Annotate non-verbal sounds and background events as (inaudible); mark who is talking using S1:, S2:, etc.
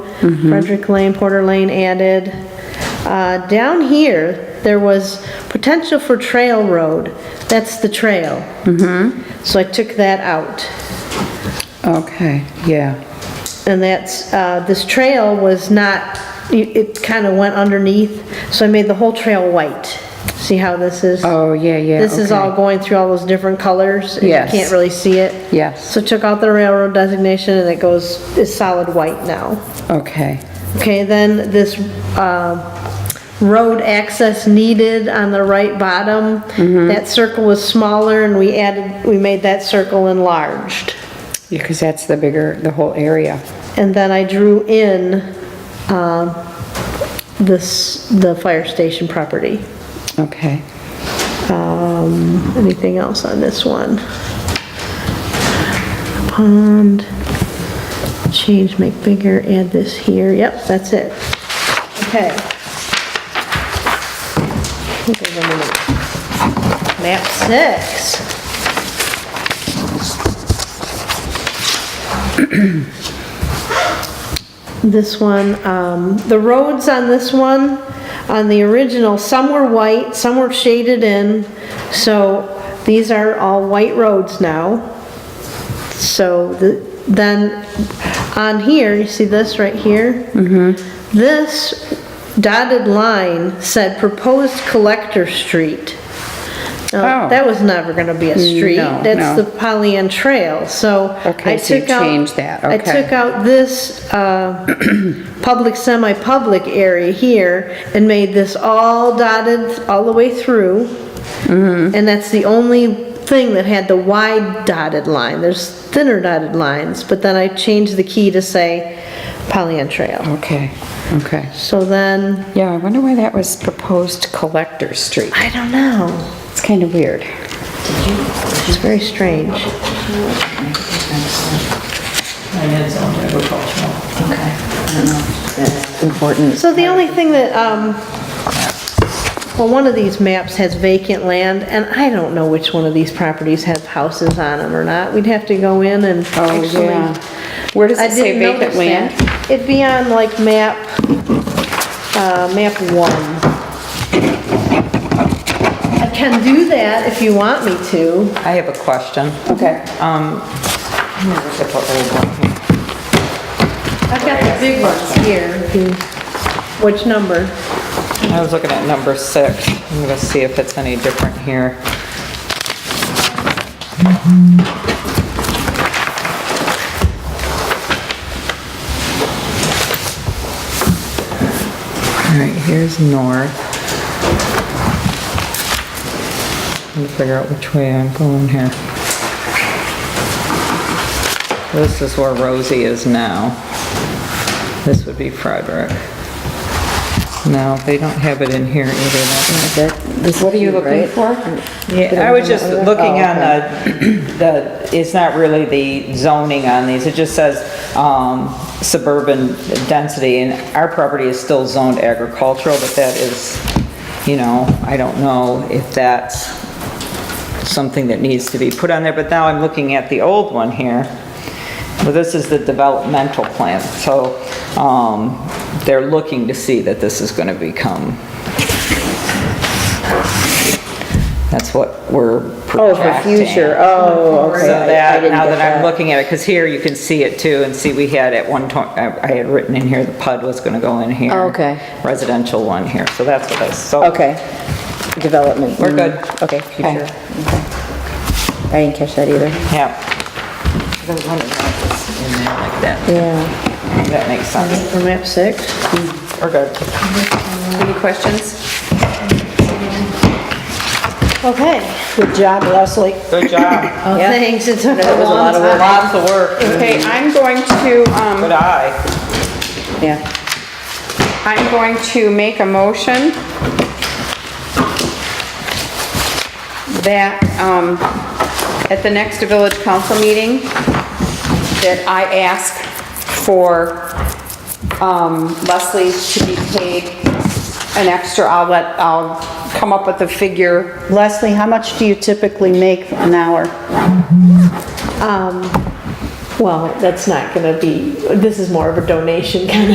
S1: Frederick Lane, Porter Lane added. Uh, Down here, there was potential for trail road. That's the trail.
S2: Mm-hmm.
S1: So I took that out.
S2: Okay, yeah.
S1: And that's, uh, this trail was not, it- it kind of went underneath, so I made the whole trail white. See how this is?
S2: Oh, yeah, yeah,
S1: This is all
S2: okay.
S1: going through all those different colors. and
S2: Yes.
S1: You can't really see it.
S2: Yes,
S1: So took out the railroad designation and it goes, is solid white now.
S2: okay.
S1: Okay, then this, uh, road access needed on the right bottom, that circle was smaller and we added, we made that circle enlarged.
S2: Because that's the bigger, the whole area.
S1: And then I drew in, um, this, the fire station property.
S2: Okay.
S1: Um, anything else on this one? Pond, change, make bigger, add this here, yep, that's it. Okay. Give them a minute. Map six, this one, um, the roads on this one, on the original, some were white, some were shaded in, so these are all white roads now. So the, then on here, you see this right here? Mm-hmm. This dotted line said proposed collector street. Now,
S2: Oh.
S1: that was never gonna be a street.
S2: No,
S1: That's
S2: no.
S1: the Polly Ann Trail, so.
S2: Okay,
S1: I
S2: so you
S1: took out-
S2: changed that,
S1: I
S2: okay.
S1: took out this,
S2: (clears throat)
S1: uh, public, semi-public area here and made this all dotted all the way through.
S2: Mm-hmm.
S1: And that's the only thing that had the wide dotted line. There's thinner dotted lines, but then I changed the key to say Pollyant Trail.
S2: Okay, okay.
S1: So then,
S2: Yeah, I wonder why that was proposed collector street.
S1: I don't know.
S2: It's kind of weird.
S1: It's very strange.
S2: Important.
S1: So the only thing that, um, well, one of these maps has vacant land, and I don't know which one of these properties have houses on them or not. We'd have to go in and
S2: Oh,
S1: actually.
S2: yeah. Where does
S1: I
S2: it say
S1: didn't
S2: vacant
S1: notice
S2: land?
S1: that. It'd be on like map, uh, map one. I can do that if you want me to.
S3: I have a question.
S2: Okay.
S3: Um, I'm gonna look at the old one here.
S1: I've got the big ones here. Which number?
S3: I was looking at number six. I'm gonna see if it's any different here. All right, here's north. Let me figure out which way I'm going here. This is where Rosie is now. This would be Frederick. No, they don't have it in here either. That-
S2: What are you looking for?
S3: Yeah, I was just looking on the, the, it's not really the zoning on these, it just says um, suburban density, and our property is still zoned agricultural, but that is, you know, I don't know if that's something that needs to be put on there, but now I'm looking at the old one here. Well, this is the developmental plan, so um, they're looking to see that this is gonna become that's what we're
S2: Oh,
S3: projecting.
S2: for future, oh, okay.
S3: So
S2: I- I
S3: that,
S2: didn't
S3: now
S2: get
S3: that I'm looking at it, because here you can see it too, and see we had at one time, I had written in here, the PUD was gonna go in here.
S2: Oh, okay.
S3: Residential one here, so that's what I, so.
S2: Okay, development.
S3: We're good.
S2: mm, Okay,
S3: Future.
S2: future. I didn't catch that either.
S3: Yeah. I was wondering why it's in there like that.
S2: Yeah.
S3: That makes sense.
S1: For map six?
S3: We're good.
S2: Any questions?
S1: Okay.
S2: Good job, Leslie.
S3: Good job.
S1: Oh,
S2: Yeah.
S1: thanks, it took
S2: That
S1: a
S2: was a
S1: long
S2: lot of
S1: time.
S2: work.
S3: Lots of work.
S4: Okay, I'm going to,
S3: Good
S4: um,
S3: eye.
S2: Yeah.
S4: I'm going to make a motion that, um, at the next village council meeting, that I ask for, um, Leslie to be paid an extra, I'll let, I'll come up with a figure.
S5: Leslie, how much do you typically make an hour?
S1: Well, that's not gonna be, this is more of a donation kind of